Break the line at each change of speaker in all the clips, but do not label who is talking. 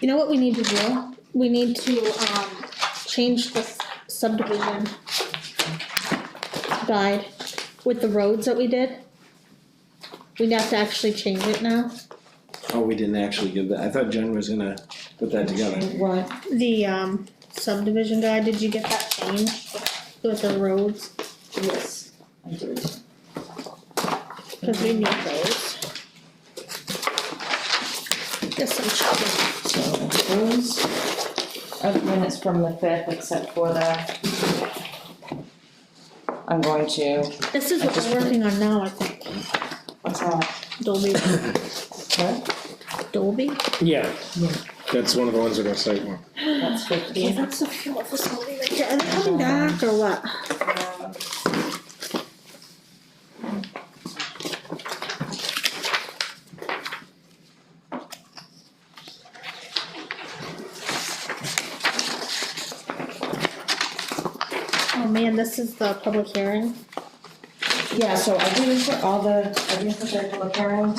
You know what we need to do? We need to, um, change the subdivision guide with the roads that we did. We'd have to actually change it now.
Oh, we didn't actually give that, I thought Jen was gonna put that together.
What? The, um, subdivision guide, did you get that changed with the roads?
Yes, I did.
Cause we need those. Yes, I'm sure.
So those are the minutes from the fifth, except for the. I'm going to,
This is what we're working on now, I think.
what's that?
Dolby,
What?
Dolby?
Yeah.
Yeah.
That's one of the ones that are site one.
That's
Yeah,
fifteen.
that's the fuel facility right there. Are they coming back or what?
Um,
Oh man, this is the public hearing.
Yeah, so I didn't put all the, I didn't put the public hearing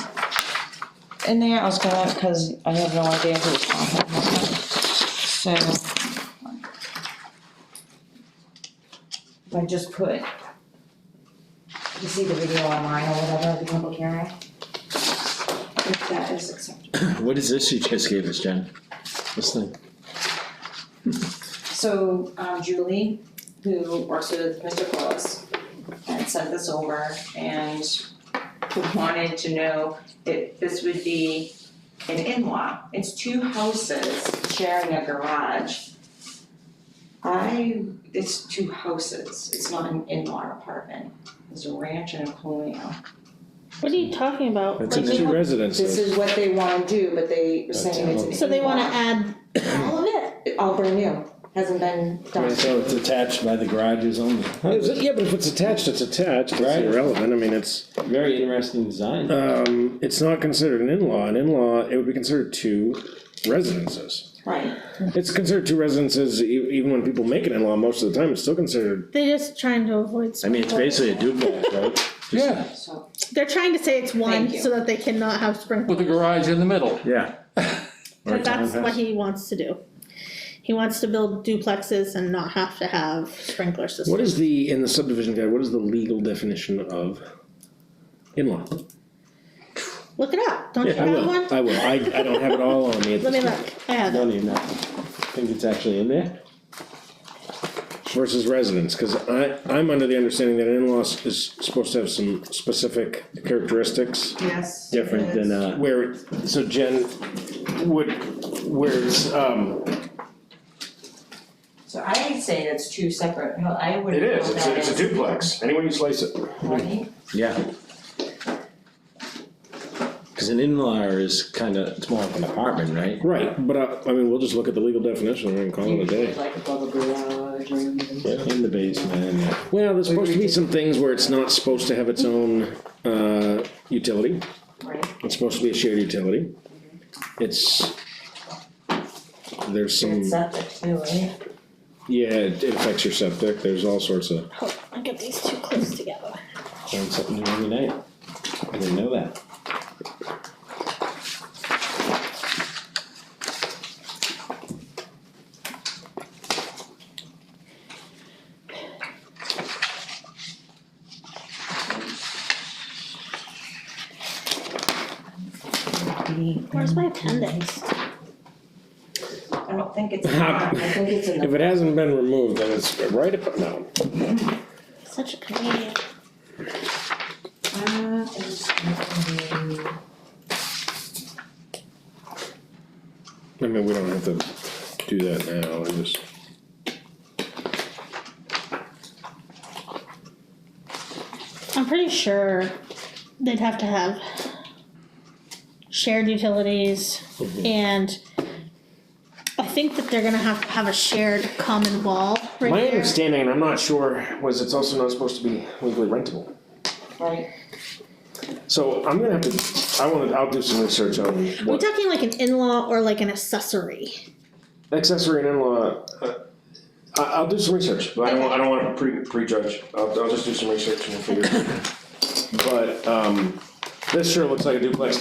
in there, I was gonna, cause I have no idea who's talking about that. So. I just put. You see the video online or whatever, the public hearing? If that is acceptable.
What is this you just gave us, Jen? This thing?
So, um, Julie, who works with Mr. Close, had sent this over and wanted to know if this would be an in-law. It's two houses sharing a garage. I, it's two houses, it's not an in-law apartment, it's a ranch and a colonial.
What are you talking about?
It's
Like,
in two
This
residences.
is what they wanna do, but they were
That's
saying it's an in-law.
So they wanna add all of it?
All brand new, hasn't been done.
So it's attached by the garages only.
Yeah, but if it's attached, it's attached, it's
Right.
irrelevant, I mean, it's,
Very interesting design.
um, it's not considered an in-law, an in-law, it would be considered two residences.
Right,
It's considered two residences, e- even when people make an in-law, most of the time, it's still considered.
They're just trying to avoid.
I mean, it's basically a duplex, right?
Yeah,
so.
They're trying to say it's one
Thank you.
so that they cannot have sprinklers.
with the garage in the middle.
Yeah. Or a
But that's
townhouse.
what he wants to do. He wants to build duplexes and not have to have sprinkler systems.
What is the, in the subdivision guide, what is the legal definition of in-law?
Look it up. Don't you
Yeah, I
have one?
will, I will, I, I don't have it all on me at
Let me
this
look.
point.
I have it.
Don't even know. I think it's actually in there.
Versus residence, cause I, I'm under the understanding that an in-law is supposed to have some specific characteristics.
Yes.
Different than, uh,
Where, so Jen, would, where's, um.
So I would say that's two separate, no, I would.
It is, it's, a- it's a duplex, any way you slice it.
Right?
yeah. Cause an in-law is kinda, it's more of an apartment, right?
Right, but uh, I, I mean, we'll just look at the legal definition and call Oh, it a
Maybe
day.
Like above a uh, garage or even-
In the basement, and the-
Well, there's supposed to be some things where it's not supposed to have its own, uh, utility,
right?
it's supposed to be a shared utility. It's, there's some,
It's up there too, right?
yeah, it it affects your septic, there's all sorts of,
Hold on, I'll get these two close together.
learn something new every night. I didn't know that.
Where's my appendix?
I don't think it's,
How-
I think it's in
if
the,
it hasn't been removed, then it's right up, no.
Such a comedian.
uh, it's in the,
I mean, we don't have to do that now, I just.
I'm pretty sure they'd have to have shared utilities and I think that they're gonna have to have a shared common wall right
My
there.
understanding, and I'm not sure, was it's also not supposed to be legally rentable.
right,
So I'm gonna have to, I wanna, I'll do some research on
Are we
what
talking like an in-law or like an accessory?
accessory and in-law. uh, I, I'll do some research, but I don't, I don't wanna pre, prejudge, I'll, I'll just do some research and we'll figure it out. But, um, this sure looks like a duplex